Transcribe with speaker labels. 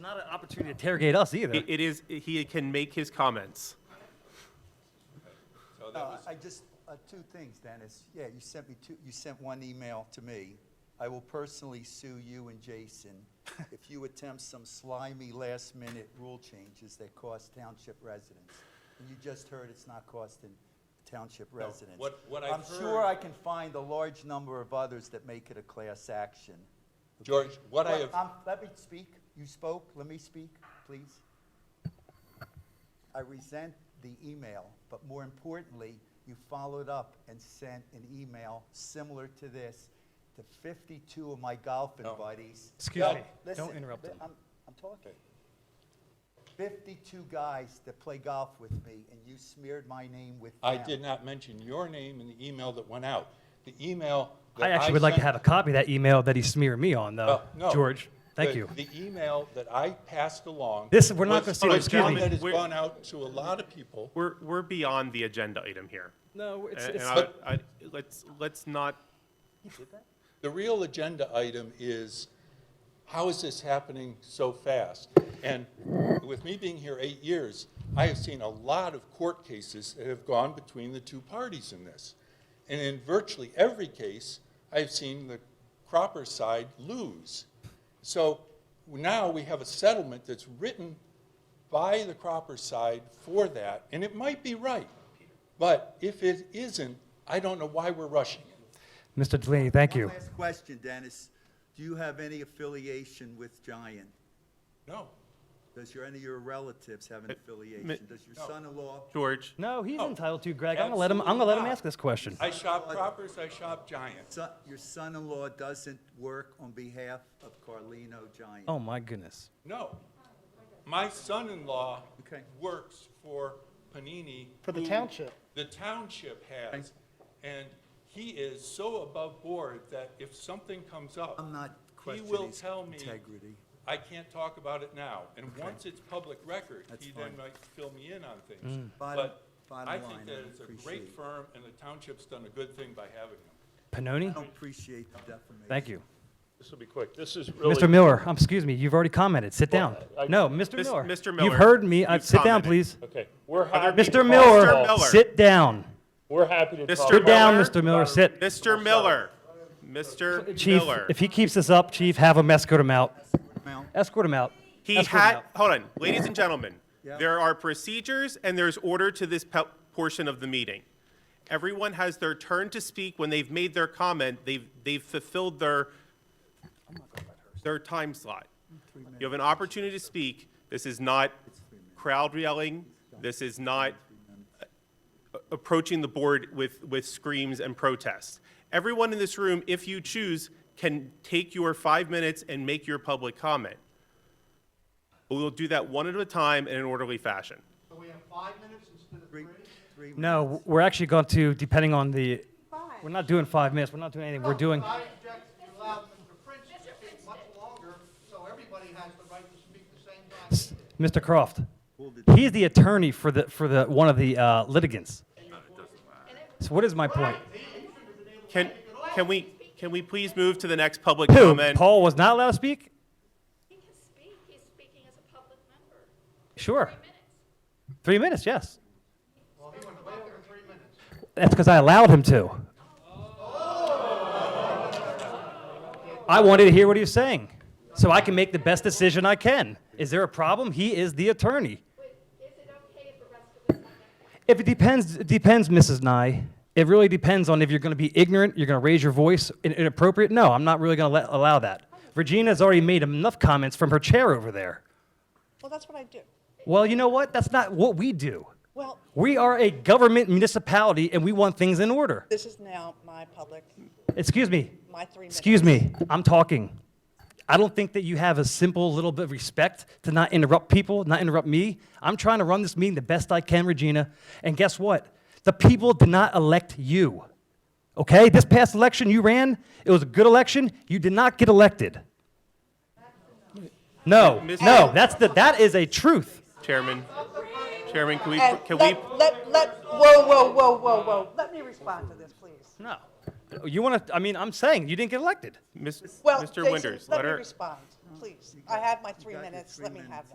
Speaker 1: Not an opportunity to interrogate us either.
Speaker 2: It it is, he can make his comments.
Speaker 3: Uh, I just, uh, two things, Dennis. Yeah, you sent me two, you sent one email to me. I will personally sue you and Jason if you attempt some slimy last-minute rule changes that cost township residents. And you just heard it's not costing township residents.
Speaker 4: what- what I've
Speaker 3: I'm sure
Speaker 4: heard-
Speaker 3: I can find a large number of others that make it a class action.
Speaker 4: Uh, George, what I
Speaker 3: Well,
Speaker 4: have,
Speaker 3: um, Let me speak. You spoke. Let me speak, please. I resent the email, but more importantly, you followed up and sent an email similar to this to 52 of my golfing
Speaker 4: No.
Speaker 3: buddies.
Speaker 1: Excuse
Speaker 3: No,
Speaker 1: me. Don't
Speaker 3: listen,
Speaker 1: interrupt
Speaker 3: li-
Speaker 1: them.
Speaker 3: I'm, I'm talking. 52 guys that play golf with me, and you smeared my name with
Speaker 4: I
Speaker 3: them.
Speaker 4: did not mention your name in the email that went out. The email that
Speaker 1: I
Speaker 4: I
Speaker 1: actually would like to
Speaker 4: sent-
Speaker 1: have a copy of that email that he smeared me on, though.
Speaker 4: Well, no.
Speaker 1: George, thank
Speaker 4: The-
Speaker 1: you.
Speaker 4: The email that I passed along.
Speaker 1: This- we're not
Speaker 4: was-
Speaker 1: gonna see it,
Speaker 4: was
Speaker 1: excuse
Speaker 4: one
Speaker 1: me.
Speaker 4: That has
Speaker 2: We're-
Speaker 4: gone out to a lot of people.
Speaker 2: We're, we're beyond the agenda item here.
Speaker 1: No, it's,
Speaker 2: And-
Speaker 1: it's,
Speaker 2: And I, I, let's, let's not,
Speaker 4: The real agenda item is, how is this happening so fast? And with me being here eight years, I have seen a lot of court cases that have gone between the two parties in this. And in virtually every case, I've seen the Cropper side lose. So now we have a settlement that's written by the Cropper side for that, and it might be right. But if it isn't, I don't know why we're rushing it.
Speaker 1: Mr. Delaney, thank
Speaker 3: One
Speaker 1: you.
Speaker 3: last question, Dennis. Do you have any affiliation with Giant?
Speaker 4: No.
Speaker 3: Does your, any of your relatives have an affiliation? Does your son-in-law?
Speaker 2: George,
Speaker 1: No, he's
Speaker 4: No,
Speaker 1: entitled to, Greg. I'm gonna let him, I'm gonna let him ask this question.
Speaker 4: I shop Croppers, I shop Giant.
Speaker 3: Son, your son-in-law doesn't work on behalf of Carlino Giant.
Speaker 1: Oh, my goodness.
Speaker 4: No. My son-in-law
Speaker 3: Okay.
Speaker 4: works for Panini.
Speaker 5: For the
Speaker 4: who
Speaker 5: township.
Speaker 4: The township has. And he is so above board that if something comes up.
Speaker 3: I'm not
Speaker 4: he
Speaker 3: questioning
Speaker 4: will
Speaker 3: his
Speaker 4: tell me,
Speaker 3: integrity.
Speaker 4: I can't talk about it now. And once it's public record,
Speaker 3: That's
Speaker 4: he then
Speaker 3: fine.
Speaker 4: might fill me in on things.
Speaker 3: Bottom-
Speaker 4: But
Speaker 3: bottom
Speaker 4: I
Speaker 3: line,
Speaker 4: think
Speaker 3: I
Speaker 4: that it's a
Speaker 3: appreciate
Speaker 4: great
Speaker 3: it.
Speaker 4: firm and the township's done a good thing by having them.
Speaker 3: I
Speaker 1: Panoni,
Speaker 3: don't appreciate the defamation.
Speaker 1: thank you.
Speaker 6: This will be quick. This is really.
Speaker 1: Mr. Miller, um, excuse me, you've already commented. Sit
Speaker 6: Well,
Speaker 1: down.
Speaker 6: I-
Speaker 1: No, Mr.
Speaker 2: Mis-
Speaker 1: Miller.
Speaker 2: Mr.
Speaker 1: You've
Speaker 2: Miller,
Speaker 1: heard me. I-
Speaker 2: you've
Speaker 1: Sit down,
Speaker 2: commented.
Speaker 1: please.
Speaker 6: Okay, we're happy.
Speaker 1: Mr.
Speaker 6: to talk
Speaker 2: Mr.
Speaker 1: Miller,
Speaker 2: Miller.
Speaker 1: sit down.
Speaker 6: We're happy to talk.
Speaker 1: Sit
Speaker 2: Miller.
Speaker 1: down, Mr. Miller, sit.
Speaker 2: Mr. Miller, Mr.
Speaker 1: Chief,
Speaker 2: Miller.
Speaker 1: if he keeps this up, Chief, have him escort him out.
Speaker 3: Mount,
Speaker 1: Escort him out.
Speaker 2: He
Speaker 1: Escort him
Speaker 2: had,
Speaker 1: out.
Speaker 2: hold on, ladies and gentlemen,
Speaker 3: Yeah.
Speaker 2: there are procedures and there's order to this pe- portion of the meeting. Everyone has their turn to speak when they've made their comment, they've, they've fulfilled their, their time slot. You have an opportunity to speak, this is not crowd yelling, this is not uh, approaching the board with, with screams and protests. Everyone in this room, if you choose, can take your five minutes and make your public comment. But we'll do that one at a time in an orderly fashion.
Speaker 5: So we have five minutes instead of
Speaker 3: three,
Speaker 5: three?
Speaker 3: three.
Speaker 1: No, we're actually going to, depending on the, we're not doing five minutes, we're not doing anything, we're doing,
Speaker 5: No, I object to allow Mr. Prince to speak much longer, so everybody has the right to speak the same time. he did.
Speaker 1: Mr. Croft.
Speaker 3: Hold it.
Speaker 1: He's the attorney for the, for the, one of the uh, litigants. So what is my point?
Speaker 2: Can, can we, can we please move to the next public
Speaker 1: Who,
Speaker 2: comment?
Speaker 1: Paul was not allowed to speak?
Speaker 7: He can speak, he's speaking as a public member,
Speaker 1: Sure,
Speaker 7: three minutes.
Speaker 1: three minutes, yes.
Speaker 5: Well, he went way over three minutes.
Speaker 1: That's because I allowed him to. I wanted to hear what he was saying, so I can make the best decision I can. Is there a problem? He is the attorney.
Speaker 7: Would- Is it okay if the rest of us have that?
Speaker 1: If it depends, it depends, Mrs. Nye. It really depends on if you're going to be ignorant, you're going to raise your voice in- inappropriate. No, I'm not really going to let, allow that. Regina's already made enough comments from her chair over there.
Speaker 8: Well, that's what I do.
Speaker 1: Well, you know what? That's not what we do.
Speaker 8: Well,
Speaker 1: We are a government municipality and we want things in order.
Speaker 8: this is now my public,
Speaker 1: Excuse me.
Speaker 8: my three minutes.
Speaker 1: Excuse me, I'm talking. I don't think that you have a simple little bit of respect to not interrupt people, not interrupt me. I'm trying to run this meeting the best I can, Regina. And guess what? The people did not elect you. Okay? This past election you ran, it was a good election. You did not get elected. No, no, that's the, that is a truth.
Speaker 2: Chairman, Chairman, can we,
Speaker 8: And
Speaker 2: can we,
Speaker 8: let, let, let, whoa, whoa, whoa, whoa, whoa. Let me respond to this, please.
Speaker 1: No. You want to, I mean, I'm saying you didn't get elected.
Speaker 2: Miss-
Speaker 8: Well,
Speaker 2: Mr.
Speaker 8: Jason,
Speaker 2: Winters,
Speaker 8: let
Speaker 2: let
Speaker 8: me
Speaker 2: her,
Speaker 8: respond. please. I have my three minutes, let me have